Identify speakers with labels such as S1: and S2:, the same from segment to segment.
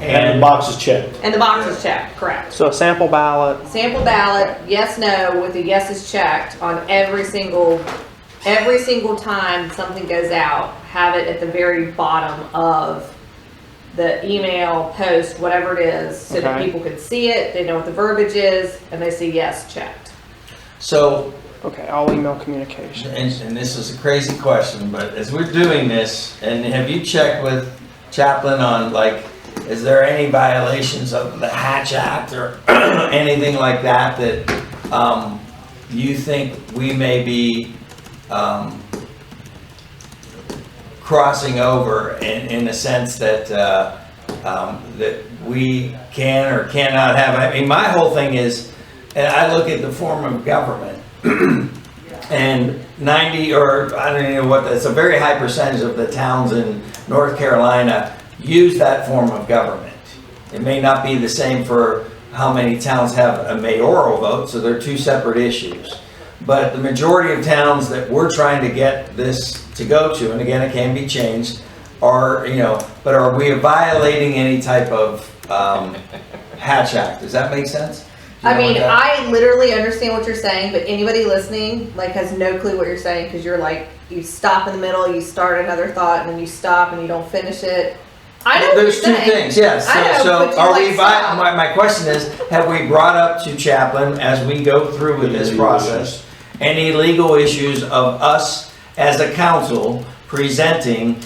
S1: And the box is checked.
S2: And the box is checked, correct.
S3: So a sample ballot,
S2: Sample ballot, yes, no, with the yeses checked on every single, every single time something goes out, have it at the very bottom of the email, post, whatever it is, so that
S3: Okay.
S2: people can see it, they know what the verbiage is, and they see yes checked.
S4: So,
S3: okay, all email communication.
S4: and, and this is a crazy question, but as we're doing this, and have you checked with Chaplin on like, is there any violations of the Hatch Act or anything like that that, um, you think we may be, um, crossing over in, in the sense that, uh, um, that we can or cannot have? I mean, my whole thing is, and I look at the form of government, and 90 or I don't even know what it's a very high percentage of the towns in North Carolina use that form of government. It may not be the same for how many towns have a mayoral vote, so they're two separate issues. But the majority of towns that we're trying to get this to go to, and again, it can be changed, are, you know, but are we violating any type of um, Hatch Act? Does that make sense? Do you
S2: I
S4: know what
S2: mean,
S4: that-
S2: I literally understand what you're saying, but anybody listening like has no clue what you're saying because you're like you stop in the middle, you start another thought, and then you stop and you don't finish it. I know
S4: There's
S2: what you're
S4: two
S2: saying.
S4: things, yes.
S2: I know,
S4: So,
S2: but you,
S4: so are
S2: like,
S4: we, vi-
S2: stop.
S4: my, my question is, have we brought up to Chaplin as we go through with this process, any legal issues of us as a council presenting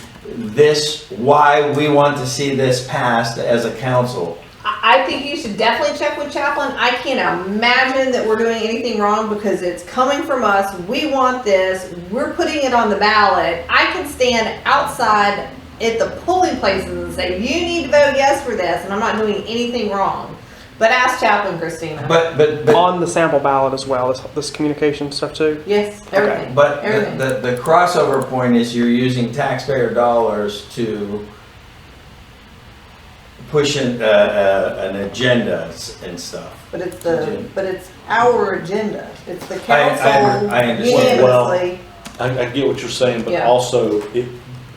S4: this, why we want to see this passed as a council?
S2: I I think you should definitely check with Chaplin. I can't imagine that we're doing anything wrong because it's coming from us. We want this. We're putting it on the ballot. I can stand outside at the polling places and say, you need to vote yes for this, and I'm not doing anything wrong. But ask Chaplin, Christina.
S4: But, but, but
S3: On the sample ballot as well, this, this communication stuff too?
S2: yes, everything.
S4: But
S2: Everything.
S4: the, the, the crossover point is you're using taxpayer dollars to push an, uh, uh, an agenda s- and stuff.
S2: But it's the, but it's our agenda. It's the
S4: I- I-
S2: council
S4: I understand.
S2: unanimously.
S1: I, I get what you're saying, but
S2: Yeah.
S1: also it,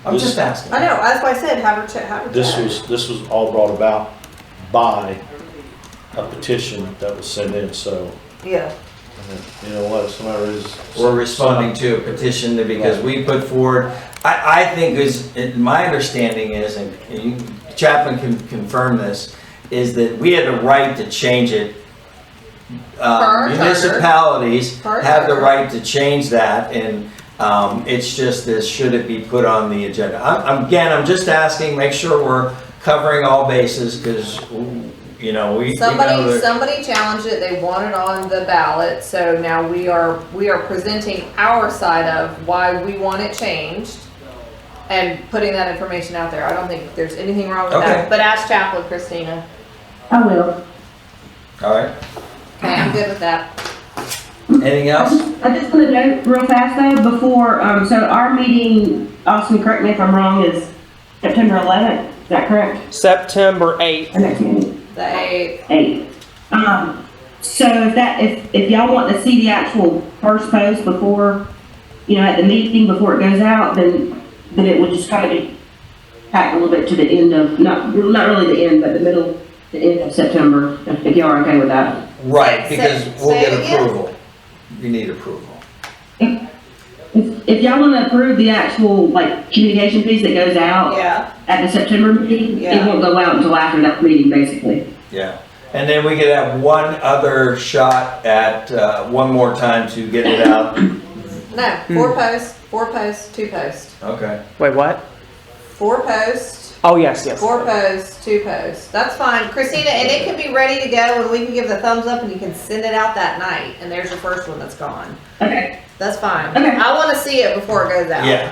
S4: I'm
S1: This-
S4: just asking.
S2: I know, that's why I said have her check, have her
S1: this
S2: check.
S1: was, this was all brought about by a petition that was sent in, so,
S2: Yeah,
S1: you know what, if somebody is.
S4: We're responding to a petition that because we put forward, I, I think is, it- my understanding is, and you- Chaplin can confirm this, is that we had the right to change it. Uh,
S2: Per our charter.
S4: Municipalities
S2: Per our
S4: have the
S2: charter.
S4: right to change that and, um, it's just this, should it be put on the agenda? I'm, I'm- again, I'm just asking, make sure we're covering all bases because, you know, we. we know
S2: somebody,
S4: that-
S2: somebody challenged it, they want it on the ballot, so now we are, we are presenting our side of why we want it changed and putting that information out there. I don't think there's anything wrong with
S4: Okay.
S2: that, but ask Chaplin, Christina.
S5: I will.
S4: All right,
S2: Okay, I'm good with that.
S4: anything else?
S5: I just want to note real fast though, before, um, so our meeting, Austin, correct me if I'm wrong, is September 11th, is that correct?
S3: September eighth,
S5: Our next meeting,
S2: They,
S5: 8th. Um, so if that, if, if y'all want to see the actual first post before, you know, at the meeting, before it goes out, then, then it would just kind of be packed a little bit to the end of, not, not really the end, but the middle, the end of September, if if y'all are okay with that.
S4: Right,
S2: Say-
S4: because
S2: say-
S4: we'll
S2: say
S4: get
S2: it again.
S4: approval. You need approval.
S5: If if y'all want to approve the actual, like, communication piece that goes out
S2: yeah,
S5: at the September meeting, it
S2: Yeah.
S5: won't go out until after that meeting, basically.
S4: Yeah. And then we could have one other shot at, uh, one more time to get it out.
S2: no,
S4: Hmm.
S2: four posts, four posts, two posts,
S4: Okay.
S3: wait, what?
S2: four posts,
S3: Oh, yes, yes.
S2: Four posts, two posts. That's fine, Christina, and it can be ready to go, and we can give the thumbs up, and you can send it out that night. And there's your first one that's gone.
S5: Okay,
S2: That's fine.
S5: Okay.
S2: I want to see it before it goes out.
S4: Yeah,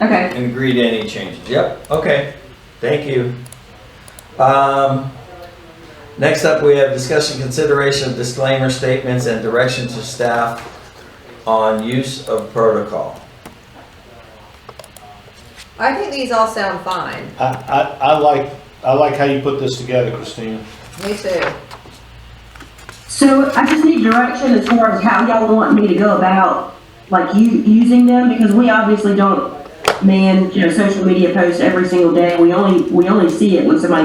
S5: okay.
S4: and agree to any changes. Yep, okay. Thank you. Um, next up, we have discussion consideration of disclaimer statements and direction to staff on use of protocol.
S2: I think these all sound fine.
S1: I, I, I like, I like how you put this together, Christina.
S2: Me too.
S5: So I just need direction as far as how y'all want me to go about, like, you, using them, because we obviously don't man, you know, social media posts every single day. We only, we only see it when somebody